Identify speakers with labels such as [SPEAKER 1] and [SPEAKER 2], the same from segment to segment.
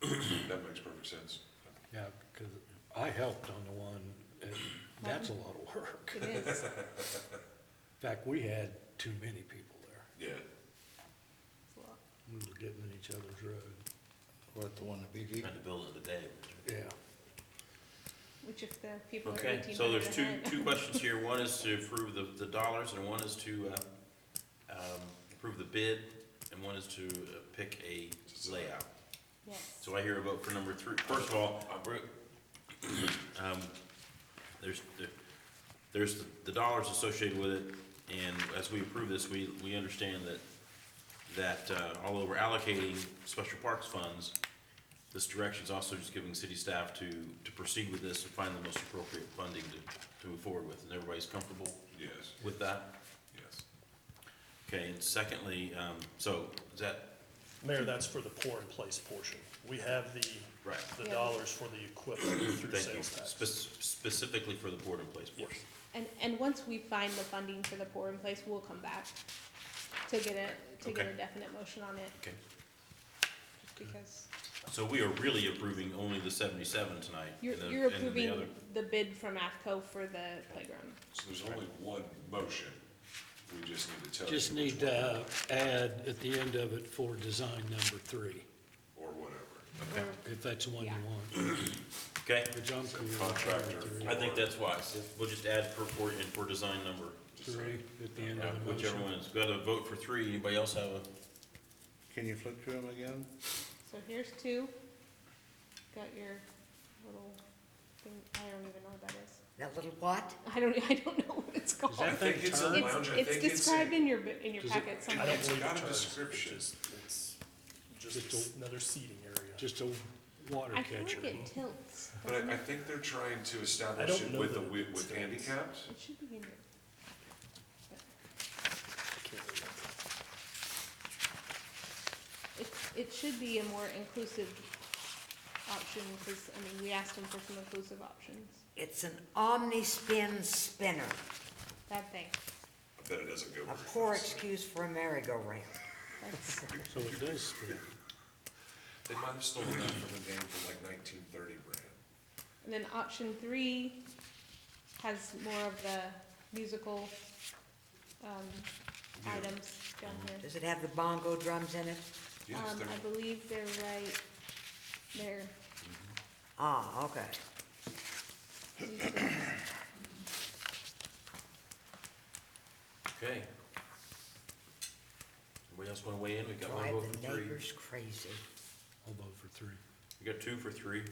[SPEAKER 1] That makes perfect sense.
[SPEAKER 2] Yeah, because I helped on the one, and that's a lot of work.
[SPEAKER 3] It is.
[SPEAKER 2] In fact, we had too many people there.
[SPEAKER 1] Yeah.
[SPEAKER 3] Well,
[SPEAKER 2] We were getting in each other's road.
[SPEAKER 4] What, the one that beat you?
[SPEAKER 5] Trying to build it today.
[SPEAKER 2] Yeah,
[SPEAKER 3] Which if the people are
[SPEAKER 5] Okay,
[SPEAKER 3] eighteen
[SPEAKER 5] so
[SPEAKER 3] hundred
[SPEAKER 5] there's two,
[SPEAKER 3] ahead.
[SPEAKER 5] two questions here. One is to approve the, the dollars, and one is to, uh, um, approve the bid, and one is to uh, pick a layout.
[SPEAKER 3] Yes,
[SPEAKER 5] So I hear a vote for number three. First of all, um, there's, there- there's the- the dollars associated with it, and as we approve this, we, we understand that, that uh, although we're allocating special parks funds, this direction is also just giving city staff to, to proceed with this and find the most appropriate funding to, to move forward with. And everybody's comfortable
[SPEAKER 1] Yes,
[SPEAKER 5] with that?
[SPEAKER 1] yes.
[SPEAKER 5] Okay, and secondly, um, so is that,
[SPEAKER 6] Mayor, that's for the pour-in-place portion. We have the,
[SPEAKER 5] Right.
[SPEAKER 6] the
[SPEAKER 3] Yeah.
[SPEAKER 6] dollars for the equipment through
[SPEAKER 5] thank you,
[SPEAKER 6] sales
[SPEAKER 5] Spe-
[SPEAKER 6] tax.
[SPEAKER 5] specifically for the board-in-place portion?
[SPEAKER 3] and, and once we find the funding for the pour in place, we'll come back to get a, to get a
[SPEAKER 5] Okay.
[SPEAKER 3] definite motion on it,
[SPEAKER 5] Okay.
[SPEAKER 3] just because
[SPEAKER 5] So we are really approving only the seventy-seven tonight?
[SPEAKER 3] you're,
[SPEAKER 5] and the-
[SPEAKER 3] you're
[SPEAKER 5] and the
[SPEAKER 3] approving
[SPEAKER 5] other-
[SPEAKER 3] the bid from AFCO for the playground.
[SPEAKER 1] So there's only one motion. We just need to tell you.
[SPEAKER 2] just
[SPEAKER 1] which
[SPEAKER 2] need
[SPEAKER 1] one
[SPEAKER 2] to add at the end of it for design number three,
[SPEAKER 1] Or whatever.
[SPEAKER 3] Or-
[SPEAKER 2] if that's the one you
[SPEAKER 3] Yeah.
[SPEAKER 2] want.
[SPEAKER 5] Okay,
[SPEAKER 2] Which I'm cool with
[SPEAKER 1] Contractor.
[SPEAKER 2] number
[SPEAKER 5] I
[SPEAKER 2] three.
[SPEAKER 5] think that's wise. We'll just add for, for, and for design number,
[SPEAKER 2] Three at the end
[SPEAKER 5] uh,
[SPEAKER 2] of the
[SPEAKER 5] whichever
[SPEAKER 2] motion.
[SPEAKER 5] one is, got a vote for three. Anybody else have a,
[SPEAKER 4] Can you flip through them again?
[SPEAKER 3] So here's two, got your little thing, I don't even know what that is.
[SPEAKER 7] That little what?
[SPEAKER 3] I don't, I don't know what it's called.
[SPEAKER 2] that
[SPEAKER 1] I think
[SPEAKER 2] thing
[SPEAKER 1] it's a
[SPEAKER 2] turn?
[SPEAKER 1] lounge,
[SPEAKER 3] It's,
[SPEAKER 1] I think
[SPEAKER 3] it's
[SPEAKER 1] it's. a-
[SPEAKER 3] described in your, bi- in your
[SPEAKER 2] Does it-
[SPEAKER 3] packet
[SPEAKER 6] I
[SPEAKER 3] somewhere.
[SPEAKER 6] don't
[SPEAKER 1] It's
[SPEAKER 6] believe it
[SPEAKER 1] got a
[SPEAKER 6] turns. It's
[SPEAKER 1] description.
[SPEAKER 6] just- It's
[SPEAKER 2] Just
[SPEAKER 6] just another seating area.
[SPEAKER 2] Just a water
[SPEAKER 3] I feel
[SPEAKER 2] catcher.
[SPEAKER 3] like it tilts.
[SPEAKER 1] But
[SPEAKER 3] doesn't
[SPEAKER 1] I, I
[SPEAKER 3] it?
[SPEAKER 1] think they're trying to
[SPEAKER 6] I
[SPEAKER 1] establish
[SPEAKER 6] don't
[SPEAKER 1] it
[SPEAKER 6] know
[SPEAKER 1] with, the
[SPEAKER 6] that
[SPEAKER 1] wi-
[SPEAKER 6] it
[SPEAKER 1] with
[SPEAKER 6] stands.
[SPEAKER 1] handicapped.
[SPEAKER 3] It should be in here.
[SPEAKER 6] I can't remember.
[SPEAKER 3] It, it should be a more inclusive option, because, I mean, we asked them for some inclusive options.
[SPEAKER 7] It's an omni-spin spinner,
[SPEAKER 3] That thing,
[SPEAKER 1] I bet it doesn't go
[SPEAKER 7] a
[SPEAKER 1] very
[SPEAKER 7] poor
[SPEAKER 1] fast.
[SPEAKER 7] excuse for a merry-go-round.
[SPEAKER 3] that's,
[SPEAKER 2] So it does spin.
[SPEAKER 1] They might have stolen that from a game from like nineteen thirty brand.
[SPEAKER 3] and then option three has more of the musical, um, items down here.
[SPEAKER 7] Does it have the bongo drums in it?
[SPEAKER 1] Yes,
[SPEAKER 3] Um,
[SPEAKER 1] they're-
[SPEAKER 3] I believe they're right there.
[SPEAKER 7] Ah, okay.
[SPEAKER 5] okay? Anybody else wanna weigh in? We got one
[SPEAKER 7] Drive
[SPEAKER 5] vote for
[SPEAKER 7] the
[SPEAKER 5] three.
[SPEAKER 7] neighbors crazy.
[SPEAKER 2] I'll vote for three.
[SPEAKER 5] We got two for three.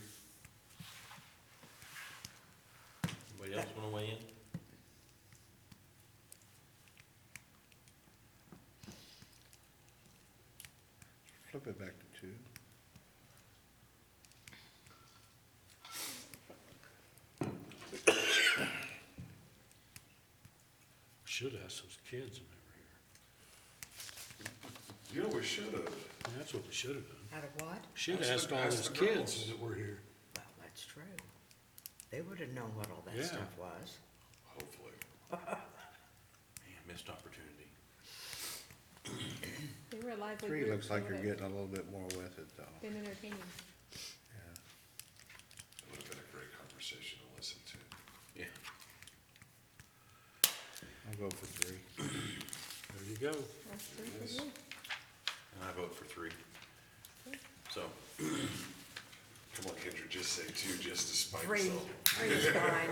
[SPEAKER 5] Anybody else wanna weigh in?
[SPEAKER 4] Flip it back to two.
[SPEAKER 2] Should ask those kids when they
[SPEAKER 1] You know, we should have.
[SPEAKER 2] were here. And that's what we should have done.
[SPEAKER 7] Out of what?
[SPEAKER 2] Should
[SPEAKER 1] Ask
[SPEAKER 2] have
[SPEAKER 1] the-
[SPEAKER 2] asked all
[SPEAKER 1] ask
[SPEAKER 2] those
[SPEAKER 1] the
[SPEAKER 2] kids
[SPEAKER 1] girls.
[SPEAKER 2] that were here.
[SPEAKER 7] Well, that's true. They would have known what all
[SPEAKER 2] Yeah.
[SPEAKER 7] that stuff was.
[SPEAKER 1] Hopefully.
[SPEAKER 5] Man, missed opportunity.
[SPEAKER 3] They were a lively
[SPEAKER 4] Three
[SPEAKER 3] group,
[SPEAKER 4] looks like
[SPEAKER 3] so
[SPEAKER 4] you're
[SPEAKER 3] they've
[SPEAKER 4] getting a little bit more with it, though.
[SPEAKER 3] Been entertaining.
[SPEAKER 4] Yeah.
[SPEAKER 1] It would have been a great conversation to listen to.
[SPEAKER 5] Yeah.
[SPEAKER 4] I'll go for three.
[SPEAKER 2] There you go.
[SPEAKER 3] That's pretty good.
[SPEAKER 5] And I vote for three. So,
[SPEAKER 1] Come on, Kendra, just say two, just to spite
[SPEAKER 7] Three,
[SPEAKER 1] yourself.
[SPEAKER 7] three is fine.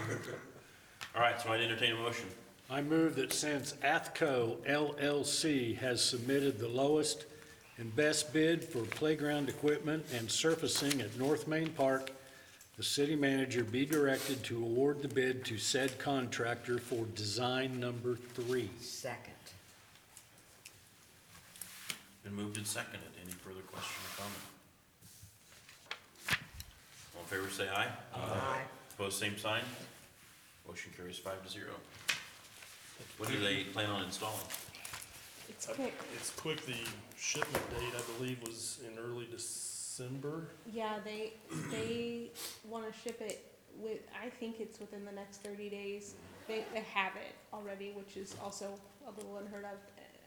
[SPEAKER 5] all right, so I'd entertain a motion.
[SPEAKER 2] I move that since Athco LLC has submitted the lowest and best bid for playground equipment and surfacing at North Main Park, the city manager be directed to award the bid to said contractor for design number three.
[SPEAKER 7] Second.
[SPEAKER 5] Been moved and seconded. Any further question or comment? All in favor, say aye.
[SPEAKER 7] Aye.
[SPEAKER 5] Opposed, same sign. Motion carries five to zero. What do they plan on installing?
[SPEAKER 3] It's quick.
[SPEAKER 6] It's quick, the shipment date, I believe, was in early December.
[SPEAKER 3] Yeah, they, they wanna ship it with, I think it's within the next thirty days. They, they have it already, which is also a little unheard of,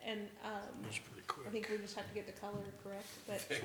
[SPEAKER 3] and, um,
[SPEAKER 2] That's pretty quick.
[SPEAKER 3] I think we just have to get the color correct, but